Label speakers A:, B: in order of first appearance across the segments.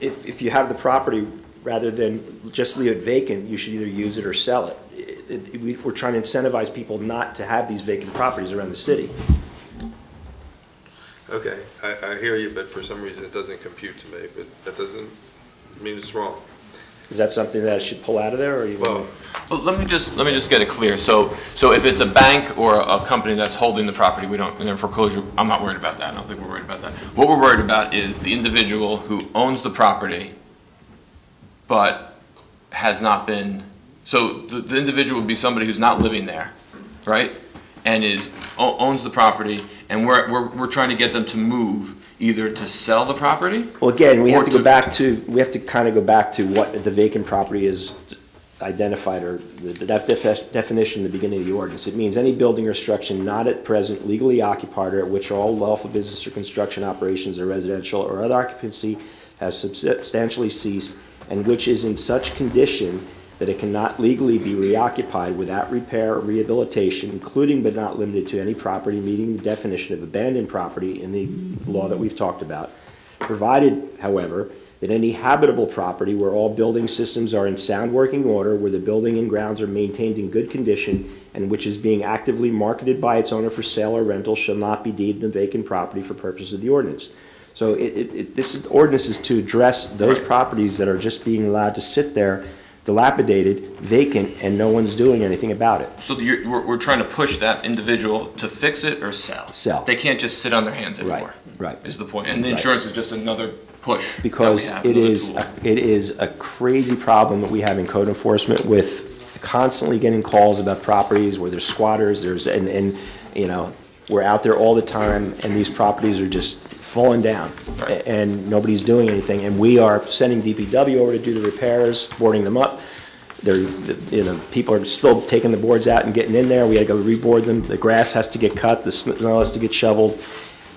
A: if you have the property, rather than just leave it vacant, you should either use it or sell it. It- it- we- We're trying to incentivize people not to have these vacant properties around the city.
B: Okay, I, I hear you, but for some reason it doesn't compute to me, but that doesn't mean it's wrong.
A: Is that something that I should pull out of there, or you
B: Well,
A: want
C: Well, let me just, let me just get it clear. So, so if it's a bank or a company that's holding the property, we don't, in foreclosure, I'm not worried about that. I don't think we're worried about that. What we're worried about is the individual who owns the property, but has not been, so the, the individual would be somebody who's not living there, right? And is, o- owns the property, and we're, we're, we're trying to get them to move, either to sell the property
A: Well, again, we have
C: Or
A: to go
C: to-
A: back to, we have to kind of go back to what the vacant property is identified or the the def- def- definition at the beginning of the ordinance. It means any building or structure not at present legally occupied or at which all lawful business or construction operations or residential or other occupancy have substantially ceased and which is in such condition that it cannot legally be reoccupied without repair or rehabilitation, including but not limited to any property meeting the definition of abandoned property in the law that we've talked about, provided, however, that any habitable property where all building systems are in sound working order, where the building and grounds are maintained in good condition, and which is being actively marketed by its owner for sale or rental shall not be deemed a vacant property for purposes of the ordinance. So it, it, it, this ordinance is to address those properties that are just being allowed to sit there dilapidated, vacant, and no one's doing anything about it.
C: So you're, we're, we're trying to push that individual to fix it or sell.
A: Sell.
C: They can't just sit on their hands
A: Right,
C: anymore.
A: right.
C: Is the point. And the insurance is just another push. that we
A: because
C: have,
A: it
C: another
A: is,
C: tool.
A: it is a crazy problem that we have in code enforcement with constantly getting calls about properties where there's squatters, there's, and, and, you know, we're out there all the time, and these properties are just falling down,
C: Right.
A: and nobody's doing anything, and we are sending DPW over to do the repairs, boarding them up. They're, you know, people are still taking the boards out and getting in there, we gotta go reboard them, the grass has to get cut, the snow has to get shoveled,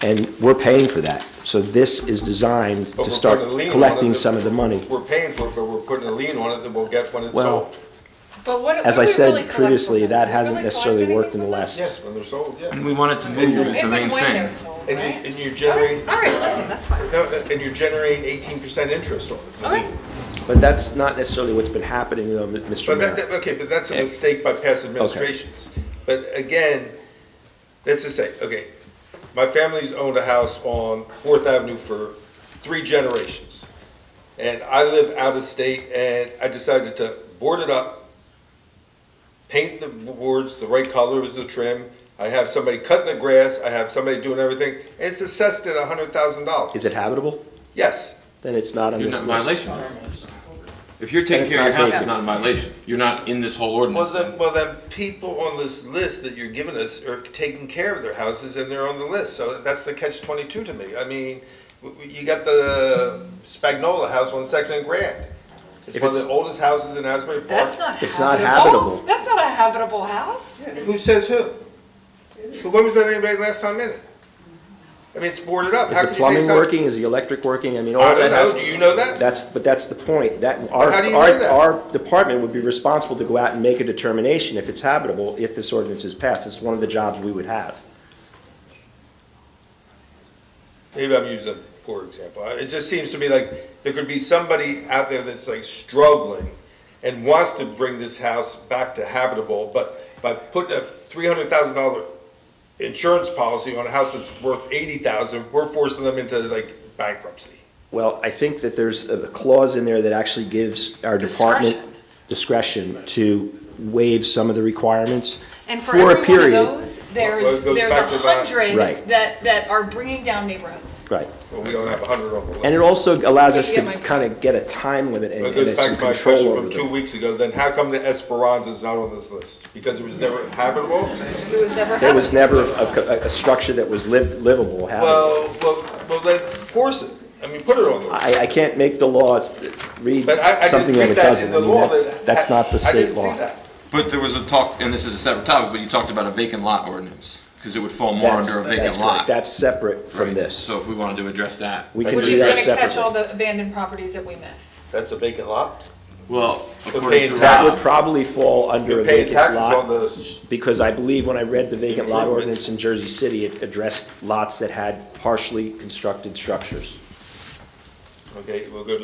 A: and we're paying for that. So this is designed
B: But
A: to
B: we're
A: start
B: putting a lien on it
A: collecting
B: that-
A: some of the money.
B: We're paying for it, but we're putting a lien on it that we'll get when it's
A: Well-
B: sold.
D: But what,
A: As
D: what
A: I
D: do we really
A: said
D: collect
A: previously,
D: from them?
A: that
D: Do we
A: hasn't
D: really
A: necessarily
D: collect
A: worked in the
D: anything
A: last,
B: Yes, when they're sold,
C: And
B: yeah.
C: we want it to move is the
D: from them?
C: main
D: If and when they're
C: thing.
D: sold,
B: And
D: right?
B: you, and you generate,
D: All right, listen, that's fine.
B: no, and you generate eighteen percent interest on it.
D: Okay,
A: but that's not necessarily what's been happening, though, M- Mr.
B: But that,
A: Mayor.
B: that- okay, but that's a mistake by past administrations. But again, let's just say, okay, my family's owned a house on Fourth Avenue for three generations. And I live out of state and I decided to board it up, paint the boards the right color as the trim. I have somebody cutting the grass, I have somebody doing everything, and it's assessed at a hundred thousand dollars.
A: Is it habitable?
B: Yes,
A: Then it's not on
C: You're
A: this
C: not in
A: list.
C: violation. If you're
A: And
C: taking
A: it's
C: care of your
A: not
C: house,
A: vacant.
C: it's not in violation. You're not in this whole
B: Well,
C: ordinance.
B: then, well, then people on this list that you're giving us are taking care of their houses and they're on the list. So that's the catch twenty-two to me. I mean, w- w- you got the Spagnola house on Second and Grand. It's
A: If
B: one of the
A: it's-
B: oldest houses in Asbury Park.
D: that's not.
A: It's not habitable.
D: That's not a habitable house.
B: Who says who? When was that anybody last time in it? I mean, it's boarded up.
A: Is
B: How
A: the
B: can you say
A: plumbing
B: something-
A: working? Is the electric working? I mean, all
B: I
A: that
B: don't
A: has.
B: know. Do you know that?
A: That's, but that's the point. That, our,
B: how do you know
A: our,
B: that?
A: our department would be responsible to go out and make a determination if it's habitable, if this ordinance is passed. It's one of the jobs we would have.
B: maybe I'm using a poor example. I- It just seems to me like there could be somebody out there that's like struggling and wants to bring this house back to habitable, but by putting a three hundred thousand dollar insurance policy on a house that's worth eighty thousand, we're forcing them into like bankruptcy.
A: Well, I think that there's a clause in there that actually gives our department discretion to waive some of the requirements
D: And for
A: for a
D: every one of
A: period.
D: those,
B: Well,
D: there's,
B: it goes
D: there's
B: back to
D: a
B: about-
A: Right.
D: hundred that, that are bringing down neighborhoods.
A: Right.
B: Well, we don't have a hundred on the list.
A: And it also allows us to
D: Yeah, my-
A: kind of get a time limit and
B: That
A: and some
B: goes back to my question
A: control over
B: from two
A: them.
B: weeks ago, then how come the Esperanza's not on this list? Because it was never habitable?
D: It was never
A: There was
D: habitable.
A: never a, a- a structure that was liv- livable, habitable.
B: Well, well, well, then force it. I mean, put it on the list.
A: I, I can't make the laws read
B: But I, I
A: something
B: didn't
A: that it
B: think that
A: doesn't.
B: in the
A: I mean,
B: law.
A: that's,
B: that-
A: that's not the
B: I
A: state
B: didn't see
A: law.
B: that.
C: But there was a talk, and this is a separate topic, but you talked about a vacant lot ordinance, because it would fall more
A: That's,
C: under a vacant
A: that's
C: lot.
A: correct. That's separate from
C: Right.
A: this.
C: So if we wanted to address that.
A: We
C: that's
A: can
D: Which
A: do
D: is
A: that
D: gonna catch
A: separately.
D: all the abandoned properties that we miss.
B: That's a vacant lot.
C: Well,
B: paying
C: according
A: That
C: to
B: tax-
C: Rob,
A: would probably fall under
B: You're
A: a
B: paying
A: vacant lot.
B: taxes on the,
A: because I believe when I read the vacant lot
B: Improvements.
A: ordinance in Jersey City, it addressed lots that had partially constructed structures.
B: okay, we'll go to